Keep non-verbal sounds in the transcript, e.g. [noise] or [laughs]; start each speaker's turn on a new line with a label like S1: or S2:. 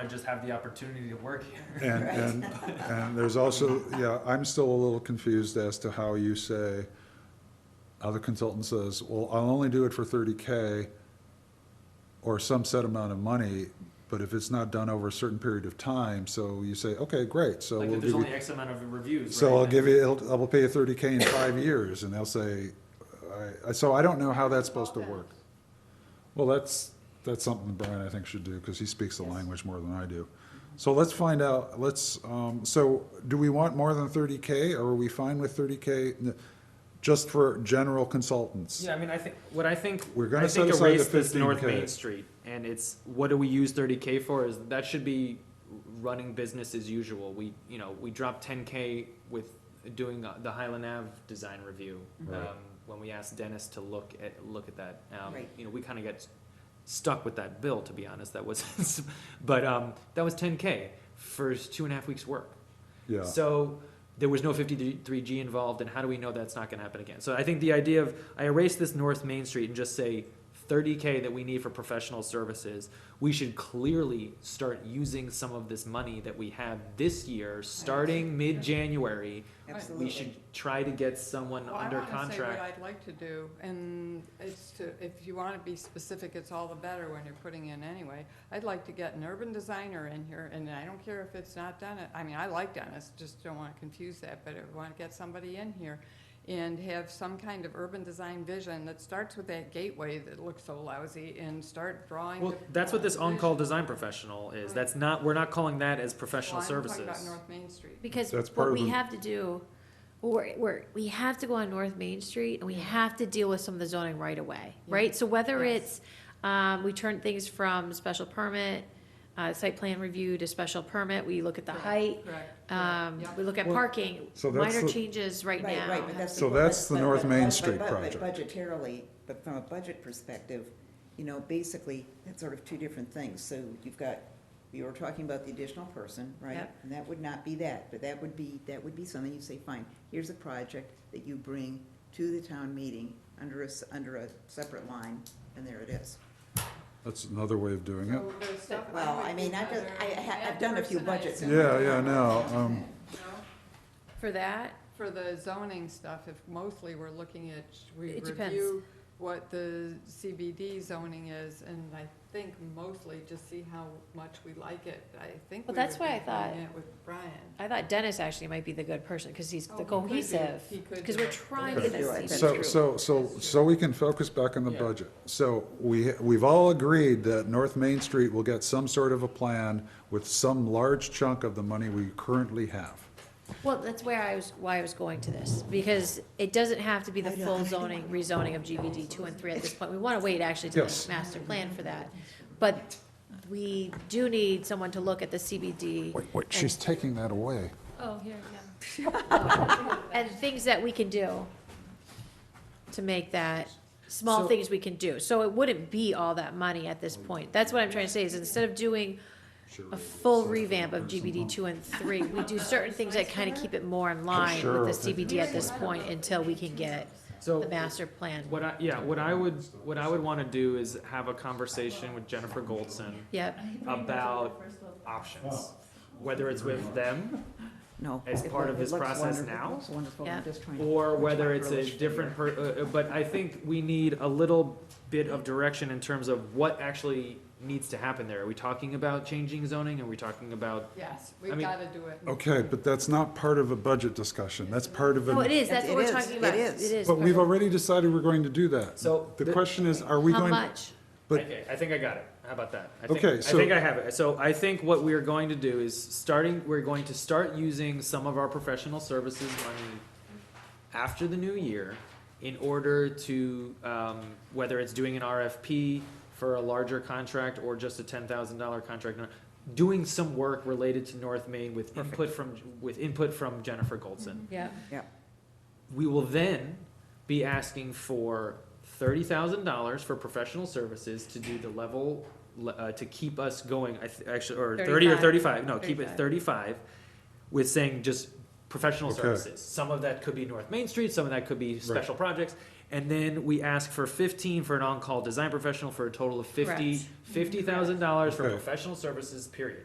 S1: I just have the opportunity to work here.
S2: [laughs] And, and, and there's also, yeah, I'm still a little confused as to how you say, how the consultant says, well, I'll only do it for thirty K or some set amount of money, but if it's not done over a certain period of time, so you say, okay, great, so
S1: Like,
S2: we'll
S1: if
S2: give
S1: there's
S2: you,
S1: only X amount of reviews,
S2: so
S1: right,
S2: I'll
S1: then-
S2: give you, I'll, I'll pay you thirty K in five years, and they'll say, I- I, so I don't know how that's supposed to work. Well, that's, that's something Brian, I think, should do, because he speaks the language more than I do. So let's find out, let's, um, so do we want more than thirty K, or are we fine with thirty K? Just for general consultants?
S1: Yeah, I mean, I think, what I think,
S2: We're gonna
S1: I think
S2: set aside the
S1: erase this North
S2: 15K.
S1: Main Street, and it's, what do we use thirty K for, is, that should be running business as usual, we, you know, we dropped ten K with doing uh, the Highland Ave design review,
S2: Right.
S1: um, when we asked Dennis to look at, look at that, um,
S3: Right.
S1: you know, we kinda got stuck with that bill, to be honest, that was, [laughs] but, um, that was ten K for two and a half weeks' work.
S2: Yeah,
S1: So there was no 53G involved, and how do we know that's not going to happen again? So I think the idea of I erase this North Main Street and just say 30K that we need for professional services, we should clearly start using some of this money that we have this year, starting mid January.
S3: Absolutely.
S1: We should try to get someone
S4: Well, I
S1: under
S4: want to say what
S1: contract.
S4: I'd like to do, and it's to, if you want to be specific, it's all the better when you're putting in anyway. I'd like to get an urban designer in here, and I don't care if it's not Dennis, I mean, I like Dennis, just don't want to confuse that, but I want to get somebody in here and have some kind of urban design vision that starts with that gateway that looks so lousy and start drawing.
S1: Well,
S4: the-
S1: that's what this on call
S4: vision.
S1: design professional is. That's not, we're not calling that as professional
S4: Well, I'm talking
S1: services.
S4: about North Main Street.
S3: Because
S2: That's part of
S3: what we
S4: Hmm.
S2: the-
S3: have to do, we're, we're, we have to go on North Main Street and we have to deal with some of the zoning right away, right? So whether
S4: Yes.
S3: it's, um, we turn things from special permit, uh, site plan review to special permit, we look at the
S4: Correct,
S3: height,
S4: correct, correct,
S3: um,
S4: yeah.
S3: we look at
S2: Well,
S3: parking,
S2: so that's
S3: minor
S2: the-
S3: changes right
S5: Right,
S3: now.
S5: right, but that's.
S2: So
S5: because-
S2: that's the
S5: but-
S2: North
S5: but-
S2: Main
S5: but-
S2: Street
S5: but- but
S2: project.
S5: Budgetarily, but from a budget perspective, you know, basically, that's sort of two different things. So you've got, we were talking about the additional person, right?
S3: Yep.
S5: And that would not be that, but that would be, that would be something you say, fine, here's a project that you bring to the town meeting under a, s- under a separate line, and there it is.
S2: that's another way of doing it.
S4: So there's stuff I
S5: Well,
S4: would
S5: I
S4: do
S5: mean, I've, done-
S4: better.
S5: I, ha-
S4: That
S5: I've done a few
S4: person I
S5: budgets.
S4: assume-
S2: Yeah, yeah, no, um,
S4: No?
S3: For that,
S4: For the zoning stuff, if mostly we're looking at, sh- we
S3: It depends.
S4: review what the CBD zoning is, and I think mostly just see how much we like it. I think we
S3: Well,
S4: would
S3: that's
S4: be
S3: why I
S4: doing
S3: thought-
S4: it with Brian.
S3: I thought Dennis actually might be the good person, cause he's
S4: Oh,
S3: the
S4: he could do-
S3: cohesive,
S4: he could
S3: cause
S4: do
S3: we're
S4: it.
S3: trying
S5: He
S3: to
S5: could
S3: get
S5: do it,
S3: this.
S5: That's
S2: So,
S5: true.
S2: so, so, so we can focus back on the
S1: Yeah.
S2: budget. So we, we've all agreed that North Main Street will get some sort of a plan with some large chunk of the money we currently have.
S3: Well, that's where I was, why I was going to this, because it doesn't have to be the
S5: I know.
S3: full zoning, rezoning of GBD two and three at this point. We wanna wait actually to the
S2: Yes.
S3: master plan for that. But we do need someone to look at the CBD
S2: Wait, wait, she's taking that away.
S3: and things that we can do to make that, small
S1: So-
S3: things we can do. So it wouldn't be all that money at this point. That's what I'm trying to say, is instead of doing a full revamp of GBD two and three, we do certain things that kinda keep it more in line
S2: sure.
S3: with the CBD at this point until we can get
S1: So
S3: the master plan.
S1: What I, yeah, what I would, what I would want to do is have a conversation with Jennifer Goldson
S3: Yep,
S1: about options. Whether it's with them,
S5: No.
S1: As
S5: it
S1: part
S5: lo-
S1: of
S5: it
S1: his
S5: looks
S1: process
S5: wonderful.
S1: now?
S5: It looks wonderful,
S3: Yeah.
S5: I'm just trying to.
S1: or
S5: I'm
S1: whether
S5: trying
S1: it's
S5: to
S1: a
S5: relate to
S1: different
S5: your-
S1: per, uh, uh, but I think we need a little bit of direction in terms of what actually needs to happen there. Are we talking about changing zoning? Are we talking about, I
S4: Yes, we've
S1: mean-
S4: gotta do it.
S2: Okay, but that's not part of a budget discussion, that's part of
S3: no, Oh, it
S2: a,
S3: is, that's what
S5: It
S3: we're
S5: is,
S3: talking
S5: it
S3: about, it
S5: is.
S3: is.
S2: but we've
S3: part of-
S2: already decided we're going to do that.
S1: So
S2: The
S1: the-
S2: question is, are we
S3: How
S2: going?
S3: much?
S2: But-
S1: okay, I think I got it. How about that? I think,
S2: Okay,
S1: I
S2: so-
S1: think I have it. So I think what we are going to do is starting, we're going to start using some of our professional services money after the new year in order to, um, whether it's doing an RFP for a larger contract or just a ten thousand dollar contract, doing some work related to North Main with input from, with input from Jennifer Goldson.
S3: Yeah,
S1: We will then be asking for thirty thousand dollars for professional services to do the level, le- uh, to keep us going, I th- actually, or thirty or thirty-five, no, keep it
S3: 35.
S1: thirty-five. With saying just professional
S2: Okay.
S1: services, some of that could be North Main Street, some of that could be special projects. And then we ask for fifteen for an on-call design professional for a total of fifty,
S3: Correct.
S1: fifty thousand dollars for
S2: Okay.
S1: professional services, period.